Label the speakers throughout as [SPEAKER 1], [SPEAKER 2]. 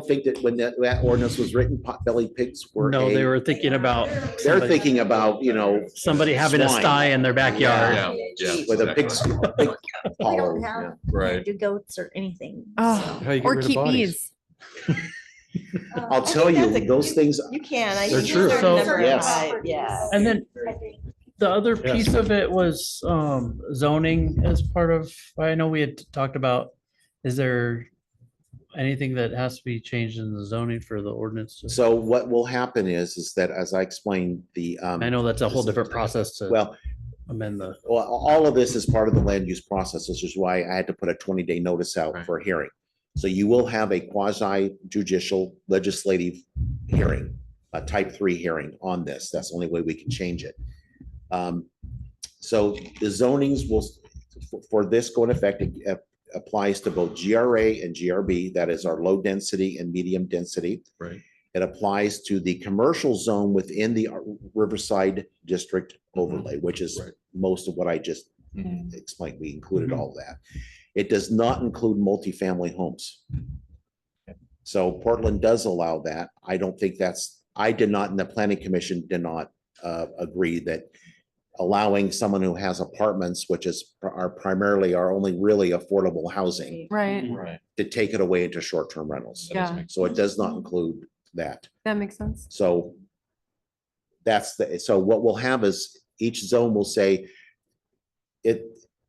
[SPEAKER 1] think that when that, that ordinance was written, potbelly pigs were
[SPEAKER 2] No,
[SPEAKER 1] a-
[SPEAKER 2] they were thinking about
[SPEAKER 1] They're
[SPEAKER 2] somebody-
[SPEAKER 1] thinking about, you know,
[SPEAKER 2] somebody having a
[SPEAKER 1] Swine.
[SPEAKER 2] sty in their backyard.
[SPEAKER 3] Yeah, yeah.
[SPEAKER 1] with a big,
[SPEAKER 3] exactly.
[SPEAKER 1] a big
[SPEAKER 4] We
[SPEAKER 1] collar.
[SPEAKER 4] don't
[SPEAKER 1] yeah.
[SPEAKER 4] have,
[SPEAKER 3] Right.
[SPEAKER 4] do goats or anything.
[SPEAKER 5] Oh,
[SPEAKER 6] How you get
[SPEAKER 5] or
[SPEAKER 6] rid of
[SPEAKER 5] keep
[SPEAKER 6] bodies.
[SPEAKER 5] bees.
[SPEAKER 1] I'll tell you, those things,
[SPEAKER 4] You can. I
[SPEAKER 6] They're
[SPEAKER 4] think
[SPEAKER 6] true.
[SPEAKER 4] there's a
[SPEAKER 2] So-
[SPEAKER 4] number of
[SPEAKER 1] Yes.
[SPEAKER 4] types, Yeah.
[SPEAKER 2] And then
[SPEAKER 4] I think
[SPEAKER 2] the other
[SPEAKER 6] Yes.
[SPEAKER 2] piece of it was um zoning as part of, I know we had talked about, is there anything that has to be changed in the zoning for the ordinance? to-
[SPEAKER 1] so what will happen is, is that as I explained, the, um,
[SPEAKER 2] I know that's a whole different process to
[SPEAKER 1] well,
[SPEAKER 2] amend the,
[SPEAKER 1] well, all of this is part of the land use process, which is why I had to put a twenty day notice out
[SPEAKER 3] Right.
[SPEAKER 1] for a hearing. So you will have a quasi judicial legislative hearing, a type three hearing on this. That's the only way we can change it. Um, so the zonings will, for- for this going effect, it ap- applies to both GRA and GRB, that is our low density and medium density.
[SPEAKER 3] Right.
[SPEAKER 1] It applies to the commercial zone within the Riverside District overlay, which is
[SPEAKER 3] Right.
[SPEAKER 1] most of what I just
[SPEAKER 3] Mhm.
[SPEAKER 1] explained. We included all that. It does not include multifamily homes. So Portland does allow that. I don't think that's, I did not, and the planning commission did not uh, agree that allowing someone who has apartments, which is pr- are primarily are only really affordable housing,
[SPEAKER 5] Right.
[SPEAKER 3] Right.
[SPEAKER 1] to take it away into short-term rentals.
[SPEAKER 5] Yeah.
[SPEAKER 1] So it does not include that.
[SPEAKER 5] That makes sense.
[SPEAKER 1] So that's the, so what we'll have is each zone will say it,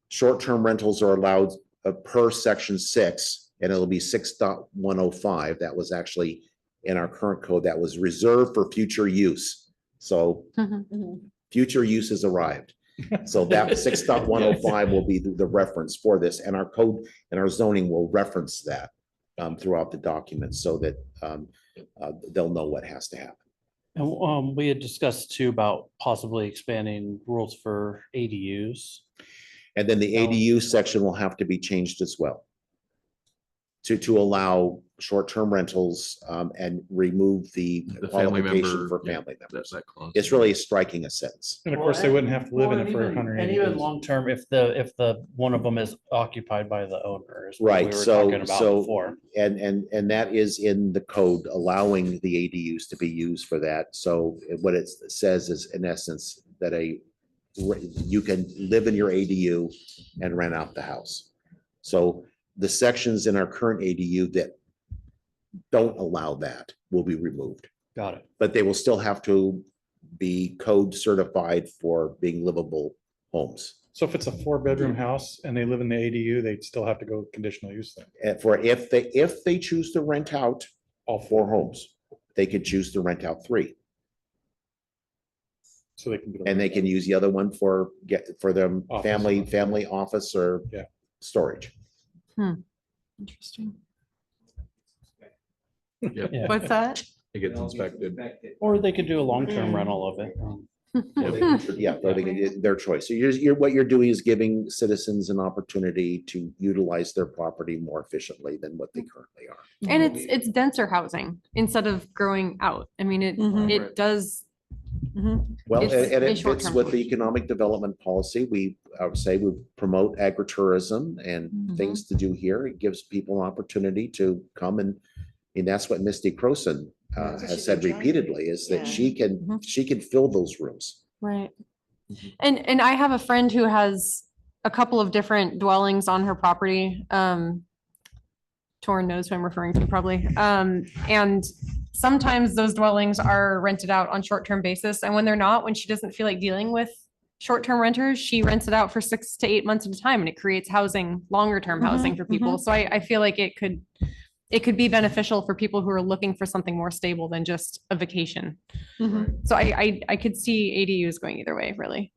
[SPEAKER 1] short-term rentals are allowed uh, per section six, and it'll be six dot one oh five. That was actually in our current code that was reserved for future use. So future use has arrived. So that six dot one oh five will be the the reference for this, and our code and our zoning will reference that um, throughout the document so that um, uh, they'll know what has to happen.
[SPEAKER 2] and um, we had discussed too about possibly expanding rules for ADUs.
[SPEAKER 1] And then the
[SPEAKER 2] Oh.
[SPEAKER 1] ADU section will have to be changed as well. To, to allow short-term rentals, um, and remove the
[SPEAKER 3] The family
[SPEAKER 1] qualification
[SPEAKER 3] member,
[SPEAKER 1] for
[SPEAKER 3] yeah,
[SPEAKER 1] family members.
[SPEAKER 3] That's that clause.
[SPEAKER 1] It's really striking a sentence.
[SPEAKER 6] And of course, they
[SPEAKER 2] Well,
[SPEAKER 6] wouldn't have to live in
[SPEAKER 2] Well,
[SPEAKER 6] it for
[SPEAKER 2] even-
[SPEAKER 6] hundred and
[SPEAKER 2] And
[SPEAKER 6] eighty
[SPEAKER 2] even
[SPEAKER 6] days.
[SPEAKER 2] long term, if the, if the, one of them is occupied by the owner. is what
[SPEAKER 1] Right,
[SPEAKER 2] we were
[SPEAKER 1] so-
[SPEAKER 2] talking about
[SPEAKER 1] so-
[SPEAKER 2] before.
[SPEAKER 1] And, and, and that is in the code, allowing the ADUs to be used for that. So what it says is in essence that a, you can live in your ADU and rent out the house. So the sections in our current ADU that don't allow that will be removed.
[SPEAKER 2] Got it.
[SPEAKER 1] but they will still have to be code certified for being livable homes.
[SPEAKER 6] So if it's a four-bedroom house and they live in the ADU, they'd still have to go conditional use then.
[SPEAKER 1] And for if they, if they choose to rent out
[SPEAKER 6] All
[SPEAKER 1] four homes, they could choose to rent out three.
[SPEAKER 6] So they can. get a
[SPEAKER 1] And they
[SPEAKER 6] rental.
[SPEAKER 1] can use the other one for get, for them
[SPEAKER 6] Office.
[SPEAKER 1] family, family office or
[SPEAKER 6] Yeah.
[SPEAKER 1] storage.
[SPEAKER 5] Interesting.
[SPEAKER 2] Yeah.
[SPEAKER 5] What's that?
[SPEAKER 3] It gets inspected.
[SPEAKER 2] Or they could do a long-term
[SPEAKER 4] Mm.
[SPEAKER 2] rental of it. um,
[SPEAKER 1] Yeah, or they can, it's their choice. So you're, you're, what you're doing is giving citizens an opportunity to utilize their property more efficiently than what they currently are.
[SPEAKER 5] And
[SPEAKER 6] Mm-hmm.
[SPEAKER 5] it's, it's denser housing instead of growing out. I mean, it,
[SPEAKER 4] Mhm.
[SPEAKER 5] it does. Mhm.
[SPEAKER 1] Well, and
[SPEAKER 5] It's
[SPEAKER 1] and
[SPEAKER 5] a
[SPEAKER 1] it fits
[SPEAKER 5] short-term
[SPEAKER 1] with the
[SPEAKER 5] solution.
[SPEAKER 1] economic development policy. We, I would say, we promote agritourism and
[SPEAKER 4] Mm-hmm.
[SPEAKER 5] Mhm.
[SPEAKER 1] things to do here. It gives people an opportunity to come and, and that's what Misty Croson uh,
[SPEAKER 4] That's what
[SPEAKER 1] has
[SPEAKER 4] she's
[SPEAKER 1] said
[SPEAKER 4] been trying to
[SPEAKER 1] repeatedly,
[SPEAKER 4] do,
[SPEAKER 1] is that
[SPEAKER 4] yeah. Mm-hmm.
[SPEAKER 1] she can,
[SPEAKER 5] Mhm.
[SPEAKER 1] she can fill those rooms.
[SPEAKER 5] Right. And, and I have a friend who has a couple of different dwellings on her property. Um, Torn knows who I'm referring to probably. Um, and sometimes those dwellings are rented out on short-term basis. And when they're not, when she doesn't feel like dealing with short-term renters, she rents it out for six to eight months at a time and it creates housing, longer-term
[SPEAKER 4] Mhm,
[SPEAKER 5] housing for people. So I, I feel like it could, it could be beneficial for people who are looking for something more stable than just a vacation. So I, I, I could see ADUs going either way, really.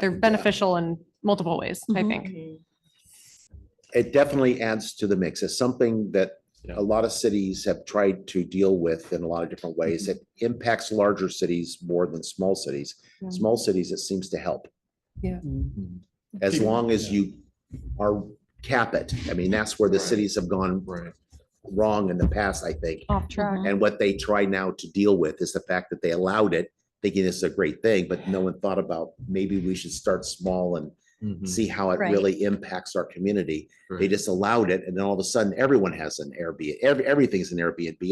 [SPEAKER 5] They're
[SPEAKER 1] think, uh,
[SPEAKER 5] beneficial in multiple ways, I
[SPEAKER 4] Mhm.
[SPEAKER 5] think.
[SPEAKER 1] It definitely adds to the mix. It's something that
[SPEAKER 3] Yeah.
[SPEAKER 1] a lot of cities have tried to deal with in a lot of different
[SPEAKER 3] Mm-hmm.
[SPEAKER 1] ways. It impacts larger cities more than small cities.
[SPEAKER 5] Yeah.
[SPEAKER 1] Small cities, it seems to help.
[SPEAKER 2] mm,
[SPEAKER 3] Mm-hmm.
[SPEAKER 5] Mm-hmm.
[SPEAKER 1] as
[SPEAKER 6] Keep-
[SPEAKER 1] long as
[SPEAKER 6] yeah.
[SPEAKER 1] you are cap it. I mean, that's where the
[SPEAKER 3] Right.
[SPEAKER 1] cities have gone
[SPEAKER 3] Right.
[SPEAKER 1] wrong in the past, I think.
[SPEAKER 5] Off track.
[SPEAKER 1] And what they try now to deal with is the fact that they allowed it, thinking it's a great thing, but no one thought about maybe we should start small and see how it
[SPEAKER 5] Right.
[SPEAKER 1] really impacts our community. They
[SPEAKER 3] Mm-hmm. Right.
[SPEAKER 1] just allowed it and then all of a sudden everyone has an Airbnb, every, everything's an Airbnb